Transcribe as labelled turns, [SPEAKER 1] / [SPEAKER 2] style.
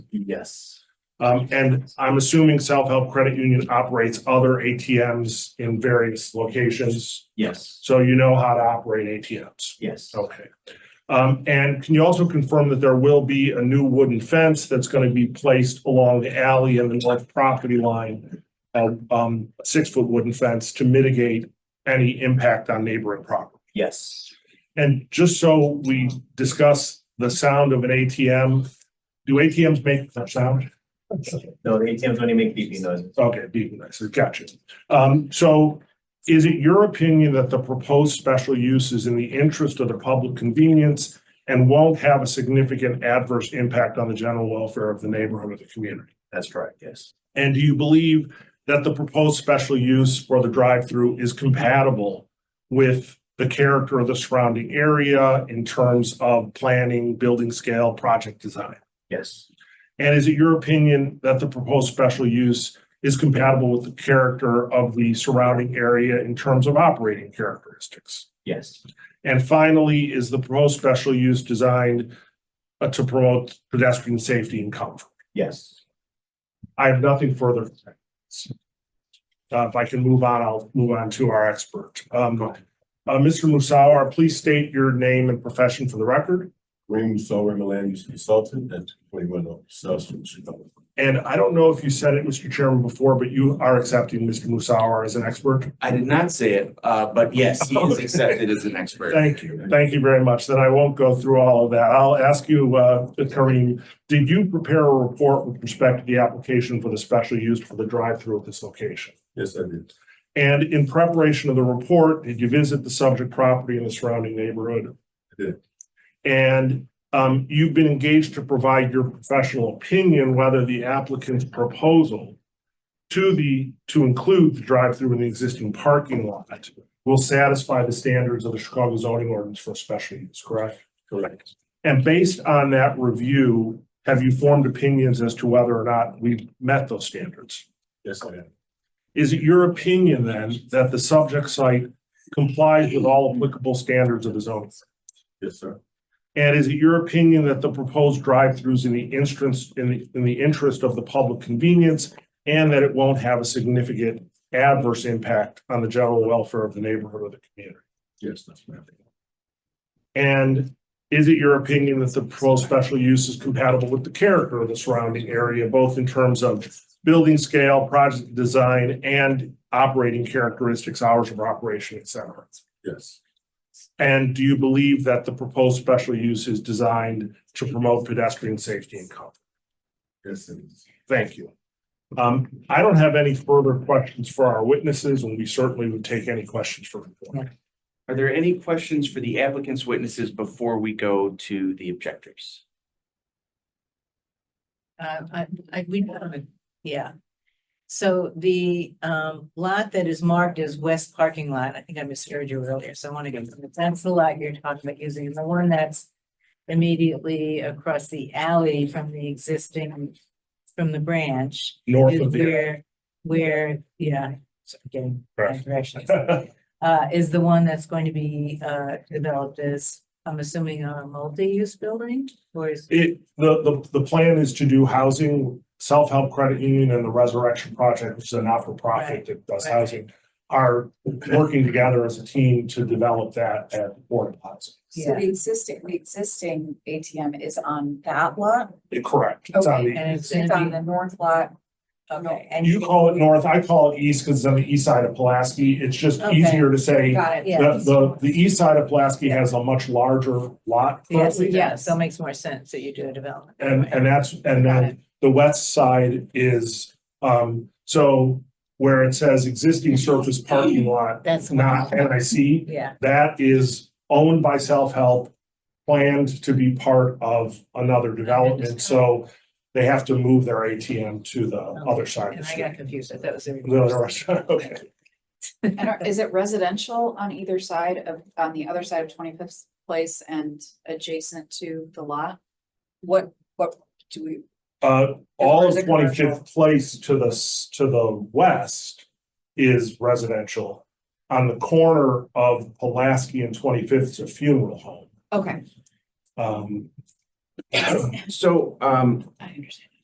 [SPEAKER 1] Yes.
[SPEAKER 2] Um, and I'm assuming Self-Help Credit Union operates other ATMs in various locations,
[SPEAKER 1] Yes,
[SPEAKER 2] so you know how to operate ATMs.
[SPEAKER 1] yes.
[SPEAKER 2] Okay. Um, and can you also confirm that there will be a new wooden fence that's gonna be placed along the alley and the left property line? uh, um, a six-foot wooden fence to mitigate any impact on neighboring property?
[SPEAKER 1] Yes.
[SPEAKER 2] And just so we discuss the sound of an ATM, do ATMs make that sound?
[SPEAKER 1] No, the ATMs only make beeping noises.
[SPEAKER 2] Okay, beeping nicer, gotcha. Um, so is it your opinion that the proposed special use is in the interest of the public convenience and won't have a significant adverse impact on the general welfare of the neighborhood or the community?
[SPEAKER 1] That's correct, yes.
[SPEAKER 2] And do you believe that the proposed special use for the drive-through is compatible with the character of the surrounding area in terms of planning, building scale, project design?
[SPEAKER 1] Yes,
[SPEAKER 2] And is it your opinion that the proposed special use is compatible with the character of the surrounding area in terms of operating characteristics?
[SPEAKER 1] yes,
[SPEAKER 2] And finally, is the proposed special use designed uh, to promote pedestrian safety and comfort?
[SPEAKER 1] yes.
[SPEAKER 2] I have nothing further. to say. Uh, if I can move on, I'll move on to our expert. Um, uh, Mr. Musawar, please state your name and profession for the record.
[SPEAKER 3] Raymond Sower, land use consultant at twenty-one oh South Street, Chicago.
[SPEAKER 2] And I don't know if you said it, Mr. Chairman, before, but you are accepting Mr. Musawar as an expert?
[SPEAKER 4] I did not say it, uh, but yes, he is accepted as an expert.
[SPEAKER 2] Thank you. Thank you very much. Then I won't go through all of that. I'll ask you, uh, Kareem, did you prepare a report with respect to the application for the special use for the drive-through at this location?
[SPEAKER 3] Yes, I did.
[SPEAKER 2] And in preparation of the report, did you visit the subject property and the surrounding neighborhood?
[SPEAKER 3] I did.
[SPEAKER 2] And, um, you've been engaged to provide your professional opinion whether the applicant's proposal to the, to include the drive-through in the existing parking lot will satisfy the standards of the Chicago zoning ordinance for special use, correct? Correct. And based on that review, have you formed opinions as to whether or not we've met those standards?
[SPEAKER 3] Yes, I am.
[SPEAKER 2] Is it your opinion then that the subject site complies with all applicable standards of the zoning?
[SPEAKER 3] Yes, sir.
[SPEAKER 2] And is it your opinion that the proposed drive-throughs in the instance, in the, in the interest of the public convenience and that it won't have a significant adverse impact on the general welfare of the neighborhood or the community?
[SPEAKER 3] Yes, that's my opinion.
[SPEAKER 2] And is it your opinion that the proposed special use is compatible with the character of the surrounding area, both in terms of building scale, project design, and operating characteristics, hours of operation, et cetera?
[SPEAKER 3] Yes,
[SPEAKER 2] And do you believe that the proposed special use is designed to promote pedestrian safety and comfort?
[SPEAKER 3] yes, it is.
[SPEAKER 2] Thank you. Um, I don't have any further questions for our witnesses, and we certainly would take any questions for them.
[SPEAKER 4] Are there any questions for the applicant's witnesses before we go to the objectors?
[SPEAKER 5] Uh, I, I, we, yeah. So the, um, lot that is marked as west parking lot, I think I misheard you earlier, so I want to go, that's the lot you're talking about using, and the one that's immediately across the alley from the existing, from the branch,
[SPEAKER 2] North
[SPEAKER 5] is
[SPEAKER 2] of the.
[SPEAKER 5] where, where, yeah, so I'm getting bad directions. Uh, is the one that's going to be, uh, developed as, I'm assuming a multi-use building, or is?
[SPEAKER 2] It, the, the, the plan is to do housing, self-help credit union and the Resurrection Project, which is a not-for-profit
[SPEAKER 5] Right,
[SPEAKER 2] that does
[SPEAKER 5] right.
[SPEAKER 2] housing, are working together as a team to develop that at Board of Housing.
[SPEAKER 6] So the existing, the existing ATM is on that lot?
[SPEAKER 2] Eh, Correct. It's on
[SPEAKER 6] Okay,
[SPEAKER 2] the-
[SPEAKER 5] And it's
[SPEAKER 6] It's
[SPEAKER 5] gonna
[SPEAKER 6] on
[SPEAKER 5] be-
[SPEAKER 6] the north lot.
[SPEAKER 5] Okay,
[SPEAKER 6] and
[SPEAKER 2] You call it north, I call it east because it's on the east side of Pulaski. It's just
[SPEAKER 5] Okay.
[SPEAKER 2] easier to say.
[SPEAKER 6] Got it.
[SPEAKER 5] Yeah.
[SPEAKER 2] The, the, the east side of Pulaski has a much larger lot
[SPEAKER 5] Yes,
[SPEAKER 2] currently.
[SPEAKER 5] yeah, so it makes more sense that you do a development. that
[SPEAKER 2] And,
[SPEAKER 5] way.
[SPEAKER 2] and that's, and
[SPEAKER 5] Got
[SPEAKER 2] then the west side is, um, so where it says existing surface parking lot,
[SPEAKER 5] That's. the one.
[SPEAKER 2] not NIC,
[SPEAKER 5] Yeah,
[SPEAKER 2] that is owned by self-help, planned to be part of another development, so they have to move their ATM to the other side of the
[SPEAKER 5] Oh, and I got
[SPEAKER 2] street.
[SPEAKER 5] confused, I thought it was. everything.
[SPEAKER 2] The other side, okay.
[SPEAKER 6] And are- is it residential on either side of, on the other side of Twenty Fifth Place and adjacent to the lot? What, what do we,
[SPEAKER 2] Uh,
[SPEAKER 6] As
[SPEAKER 2] all
[SPEAKER 6] far as
[SPEAKER 2] of
[SPEAKER 6] the
[SPEAKER 2] Twenty
[SPEAKER 6] commercial.
[SPEAKER 2] Fifth Place to the, s- to the west is residential. On the corner of Pulaski and Twenty Fifth is a funeral home.
[SPEAKER 6] okay,
[SPEAKER 2] Um,
[SPEAKER 4] So, um,
[SPEAKER 6] um, I understand.